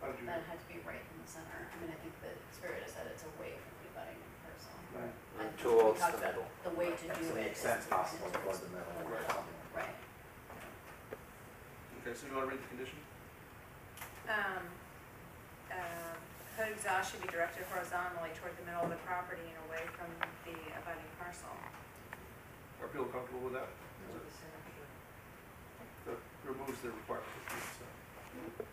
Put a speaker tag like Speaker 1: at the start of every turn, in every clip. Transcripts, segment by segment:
Speaker 1: Mm-hmm.
Speaker 2: doesn't have to be right in the center. I mean, I think the spirit is that it's away from abutting person.
Speaker 3: Right.
Speaker 2: I think we
Speaker 4: Towards
Speaker 2: talked
Speaker 4: the
Speaker 2: about
Speaker 4: middle.
Speaker 2: The way to
Speaker 3: That's
Speaker 2: do
Speaker 3: the
Speaker 2: it is.
Speaker 3: extent
Speaker 2: to
Speaker 3: possible
Speaker 2: bend it
Speaker 3: towards the
Speaker 2: towards
Speaker 3: middle.
Speaker 2: the middle. Right.
Speaker 1: Okay, so you want to read the condition?
Speaker 5: Um, uh, Hood exhaust should be directed horizontally toward the middle of the property and away from the abutting parcel.
Speaker 1: Are people comfortable with that? That removes the requirement. of being so.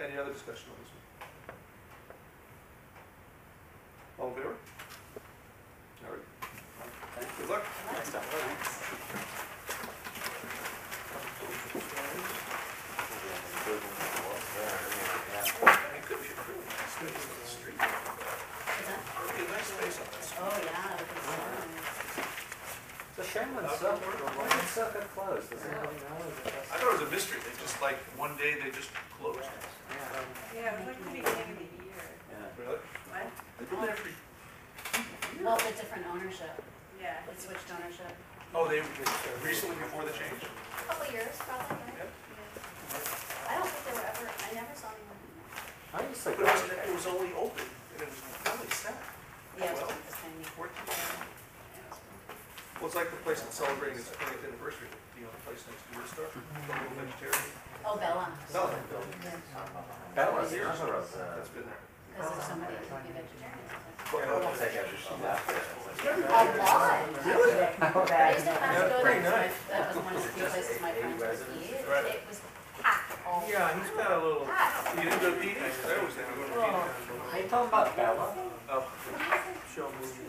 Speaker 1: Any other discussion on this one? All in favor? All right. Good luck. It could be a really nice space on the street.
Speaker 2: Is that-
Speaker 1: It would be a nice space on the street.
Speaker 2: Oh, yeah, with the sun.
Speaker 4: It's a shame when
Speaker 1: Up
Speaker 4: Suck,
Speaker 1: to work.
Speaker 4: when Succa closed, does
Speaker 2: Yeah.
Speaker 4: anybody know? Is it
Speaker 1: I
Speaker 4: just-
Speaker 1: thought it was a mystery. They just like, one day they just closed. it.
Speaker 5: Yeah, it was like the beginning of the year.
Speaker 4: Yeah.
Speaker 1: Really?
Speaker 5: What?
Speaker 1: They've been there for,
Speaker 2: Well, the different ownership,
Speaker 5: Yeah.
Speaker 2: it switched ownership.
Speaker 1: oh, they, recently before the change?
Speaker 2: Couple years, probably,
Speaker 1: Yep.
Speaker 2: right? I don't think they were ever, I never saw anyone.
Speaker 4: I used to
Speaker 1: But it
Speaker 4: go,
Speaker 1: was, it was only open, and it was probably staff.
Speaker 2: Yeah, it was
Speaker 1: Well.
Speaker 2: like this tiny.
Speaker 1: Well, it's like the place that's celebrating its twentieth anniversary, you know, the place next to your store, the little vegetarian.
Speaker 2: Oh, Bella,
Speaker 1: No,
Speaker 4: that was, that was, uh,
Speaker 1: that's been there.
Speaker 2: because there's so many vegetarians.
Speaker 4: I don't think I just left it.
Speaker 2: A lot. I used to have to go
Speaker 3: pretty
Speaker 2: there, so I-
Speaker 3: nice.
Speaker 2: that was one of the few places my friends would eat.
Speaker 1: Right.
Speaker 2: It was packed all the
Speaker 3: Yeah,
Speaker 2: time.
Speaker 3: he's got a little.
Speaker 2: Packed.
Speaker 1: You didn't go to Petey's? I always did, I go to
Speaker 4: Are you
Speaker 1: Petey's.
Speaker 4: talking about Bella?
Speaker 1: Oh,
Speaker 3: show movies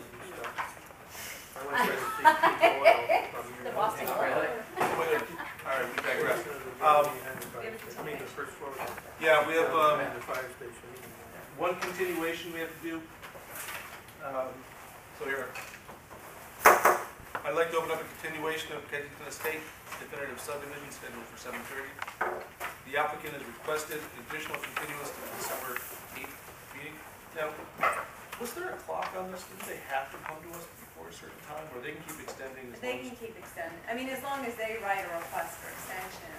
Speaker 3: and stuff. I went there to see Keith Doyle from
Speaker 2: The
Speaker 3: your-
Speaker 2: Boston
Speaker 3: Yeah.
Speaker 2: Globe.
Speaker 1: wait, all right, we digress.
Speaker 3: Um, I mean, the first floor.
Speaker 1: Yeah, we have, um,
Speaker 3: And the fire station.
Speaker 1: one continuation we have to do. Um, So here. I'd like to open up a continuation of Kensington Estate definitive subdivision scheduled for seven thirty. The applicant has requested additional continuance to the December eighth meeting. Now, was there a clock on this? Didn't they have to come to us before a certain time, or they can keep extending as long
Speaker 5: They
Speaker 1: as?
Speaker 5: can keep extending, I mean, as long as they write a request for extension.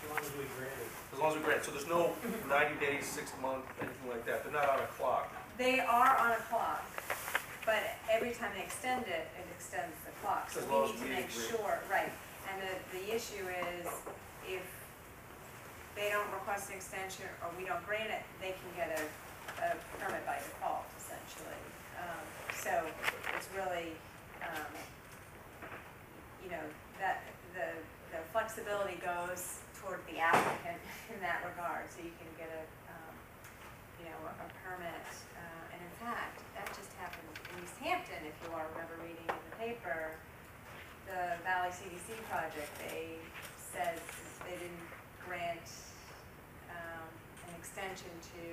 Speaker 3: As long as we grant it.
Speaker 1: As long as we grant, so there's no ninety days, six month, anything like that. They're not on a clock.
Speaker 5: They are on a clock, but every time they extend it, it extends the clock. So
Speaker 1: As long as
Speaker 5: we need to
Speaker 1: we
Speaker 5: make
Speaker 1: agree.
Speaker 5: sure, right, and the, the issue is if they don't request an extension or we don't grant it, they can get a, a permit by default essentially. Um, So it's really, um, you know, that, the, the flexibility goes toward the applicant in that regard. So you can get a, um, you know, a permit. Uh, And in fact, that just happened in East Hampton, if you all remember reading in the paper, the Valley CDC project, they said they didn't grant um, an extension to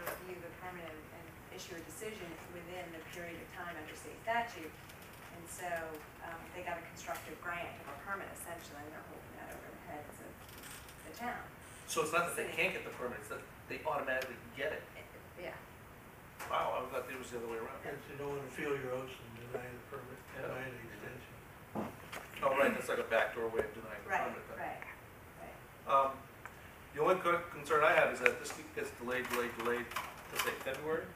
Speaker 5: review the permit and and issue a decision within the period of time under state statute. And so um, they got a constructive grant of a permit essentially, and they're holding that over the heads of the town.
Speaker 1: So it's not that Oh, they can't get the permit, it's that they automatically get it.
Speaker 5: Yeah.
Speaker 1: Wow, I thought it was the other way around.
Speaker 6: It's to no one to feel your oats and deny the permit, deny the extension.
Speaker 1: Oh, right, that's like a backdoor way of denying the
Speaker 5: Right,
Speaker 1: permit. then.
Speaker 5: right, right.
Speaker 1: Um, the only co- concern I have is that this gets delayed, delayed, delayed to say February.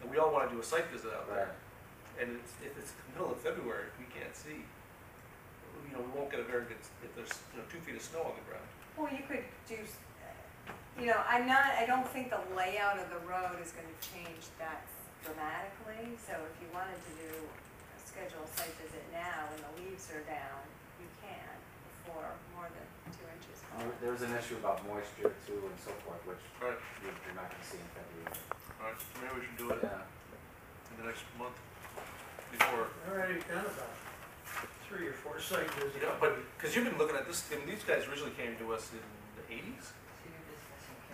Speaker 1: And we all want to do a site visit out there. And it's, if it's the middle of February, we can't see. You know, we won't get a very good, if there's, you know, two feet of snow on the ground.
Speaker 5: Well, you could do, s- you know, I'm not, I don't think the layout of the road is gonna change that dramatically, so if you wanted to do a scheduled site visit now when the leaves are down, you can before more than two inches. fall.
Speaker 4: There- There was an issue about moisture too and so forth, which
Speaker 1: All right,
Speaker 4: you- you're not gonna see in February.
Speaker 1: all right, maybe we should do it
Speaker 4: Yeah.
Speaker 1: in the next month before
Speaker 6: I've already done about three or four site visits.
Speaker 1: You know, but, because you've been looking at this, I mean, these guys originally came to us in the eighties?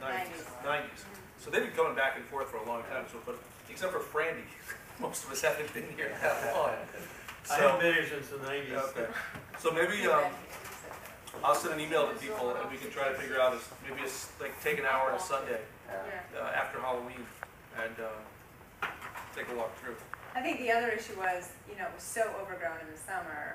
Speaker 1: Nineties, nineties. So they've been coming back and forth for a long time, so, but, except for Frandy, most of us haven't been here that long.
Speaker 6: I haven't
Speaker 1: So,
Speaker 6: been here since the nineties.
Speaker 1: okay. so maybe, um, I'll send an email to people and we can try to figure out, is- maybe it's like, take an hour on a Sunday,
Speaker 4: Yeah.
Speaker 5: Yeah.
Speaker 1: uh, after Halloween, and, um, take a walk through.
Speaker 5: I think the other issue was, you know, it was so overgrown in the summer,